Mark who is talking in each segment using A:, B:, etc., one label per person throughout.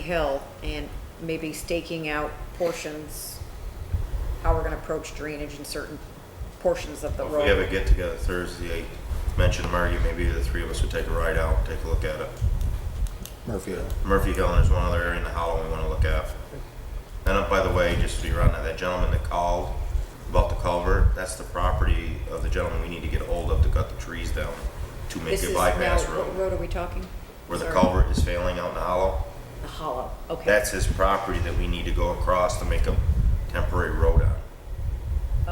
A: Hill and maybe staking out portions, how we're gonna approach drainage in certain portions of the
B: If we have a
A: road.
B: get together Thursday, I mentioned Margie, maybe the three of us would take a ride out, take a look at it.
C: Murphy.
B: Murphy Hill, and there's one other area in the hollow we wanna look at. And up, by the way, just to be around that, that gentleman that called about the culvert, that's the property of the gentleman we need to get hold of to cut the trees down to make
A: This
B: a
A: is
B: bypass
A: now- What
B: road,
A: road are we talking?
B: where the
A: Sorry.
B: culvert is failing out in the hollow.
A: The hollow, okay.
B: That's his property that we need to go across to make a temporary road on.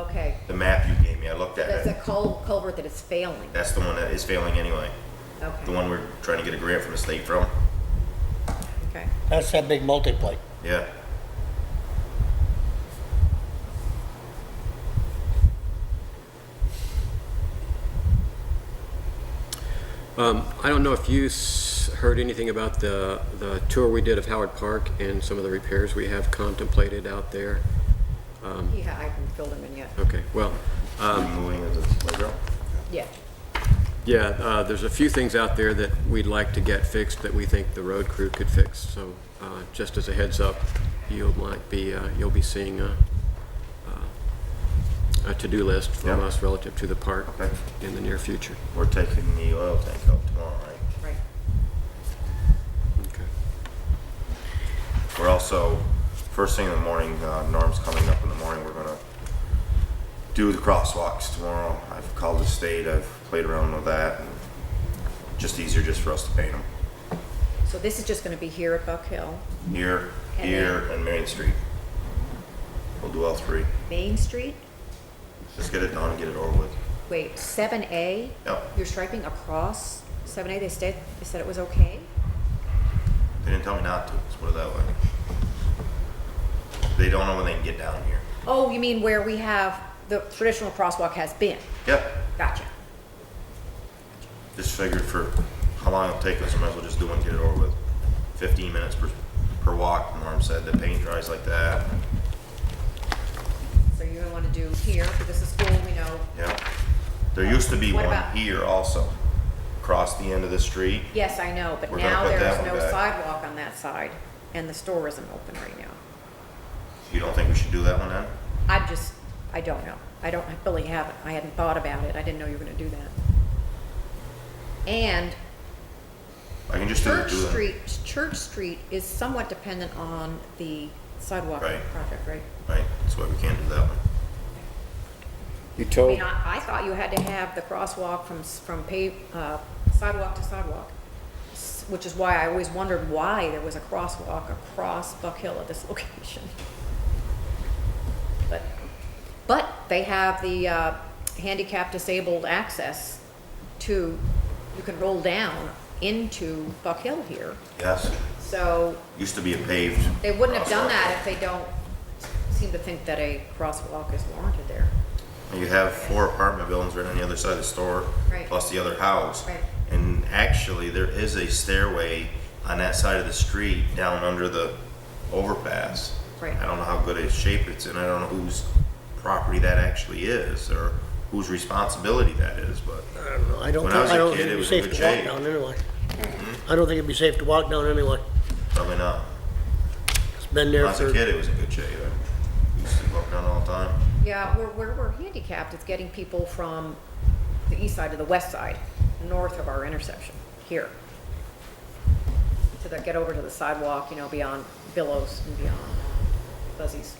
A: Okay,
B: The map you gave me, I looked at
A: that's a
B: it.
A: cul- culvert that is failing,
B: That's the one that is failing anyway. The
A: okay,
B: one we're trying to get a grant from the state from.
A: okay.
C: That's that big multi-plate.
B: Yeah.
D: Um, I don't know if you s- heard anything about the, the tour we did of Howard Park and some of the repairs we have contemplated out there.
A: Yeah, I haven't filled them in yet,
D: Okay, well,
B: Moving of the playground.
A: yeah.
D: yeah, uh, there's a few things out there that we'd like to get fixed that we think the road crew could fix. So, uh, just as a heads up, you might be, uh, you'll be seeing a, uh, a- a to-do list from
B: Yeah.
D: us relative to the park
B: Okay.
D: in the near future.
B: We're taking the oil tank out tomorrow, right?
A: Right.
D: Okay.
B: We're also, first thing in the morning, uh, Norm's coming up in the morning, we're gonna do the crosswalks tomorrow. I've called the state, I've played around with that, and just easier just for us to paint them.
A: So this is just gonna be here at Buck Hill,
B: Here,
A: And
B: here, and Main Street. We'll do all three.
A: Main Street,
B: Just get it done and get it over with.
A: wait, seven A?
B: Yep,
A: You're striping across seven A, they said, they said it was okay?
B: they didn't tell me not to, let's put it that way. They don't know when they can get down here.
A: Oh, you mean where we have, the traditional crosswalk has been?
B: Yep,
A: Gotcha.
B: Just figured for how long it'll take us, I might as well just do one, and get it over with. Fifteen minutes per, per walk, Norm said, the paint dries like that,
A: So you're gonna wanna do here, because this is school, we know.
B: yeah. There used to be
A: What
B: one
A: about-
B: here also, across the end of the street.
A: Yes, I know, but
B: We're gonna
A: now
B: put
A: there
B: that
A: is
B: one
A: no
B: back.
A: sidewalk on that side, and the store isn't open right now.
B: You don't think we should do that one then?
A: I'm just, I don't know. I don't, I really haven't, I hadn't thought about it. I didn't know you were gonna do that. And
B: I can just do it.
A: Church
B: do it.
A: Street, Church Street is somewhat dependent on the sidewalk
B: Right.
A: project, right?
B: Right, that's why we can't do that one.
D: You
A: I
D: told,
A: mean, I, I thought you had to have the crosswalk from, s- from pave, uh, sidewalk to sidewalk, s- which is why I always wondered why there was a crosswalk across Buck Hill at this location. But, but they have the, uh, handicap disabled access to, you can roll down into Buck Hill here.
B: Yes,
A: So
B: used to be a paved.
A: they wouldn't have done
B: crosswalk.
A: that if they don't seem to think that a crosswalk is warranted there.
B: You have four apartment buildings right on the other side of the store,
A: Right.
B: plus the other house.
A: Right.
B: And actually, there is a stairway on that side of the street down under the overpass.
A: Right.
B: I don't know how good a shape it's in, I don't know whose property that actually is, or whose responsibility that is, but
C: I don't know, I don't
B: When
C: think,
B: I was a
C: I don't
B: kid, it
C: think it'd be
B: was
C: safe
B: good
C: to walk
B: shape.
C: down anyway. I don't think it'd be safe to walk down anyway.
B: probably not.
C: It's been
B: When
C: there
B: I was a
C: for,
B: kid, it was in good shape. I used to walk down all the time.
A: Yeah, where, where we're handicapped is getting people from the east side to the west side, north of our intersection, here. To the, get over to the sidewalk, you know, beyond Billows and beyond uh, Buzzies.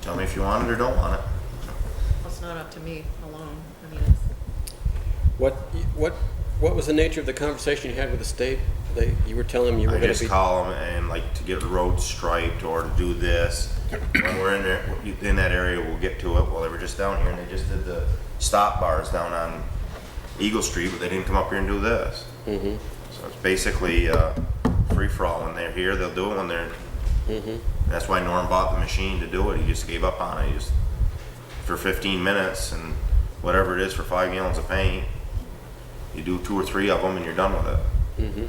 B: Tell me if you want it or don't want it.
A: It's not up to me alone, I mean, it's,
D: what, what, what was the nature of the conversation you had with the state? They, you were telling them you were
B: I
D: gonna be.
B: just call them and like to get roads striped or to do this. When we're in there, in that area, we'll get to it. Well, they were just down here and they just did the stop bars down on Eagle Street, but they didn't come up here and do this.
D: Mm-hmm.
B: So it's basically, uh, free for all. When they're here, they'll do it when they're,
D: Mm-hmm.
B: that's why Norm bought the machine to do it. He just gave up on it. He just, for fifteen minutes and whatever it is for five gallons of paint, you do two or three of them and you're done with it.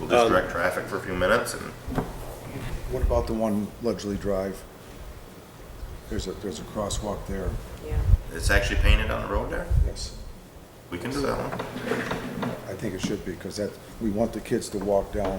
B: We'll just
D: Um,
B: direct traffic for a few minutes and
E: What about the one Ledgely Drive? There's a, there's a crosswalk there,
A: yeah.
B: it's actually painted on the road there.
E: yes.
B: We can do that one.
E: I think it should be, because that, we want the kids to walk down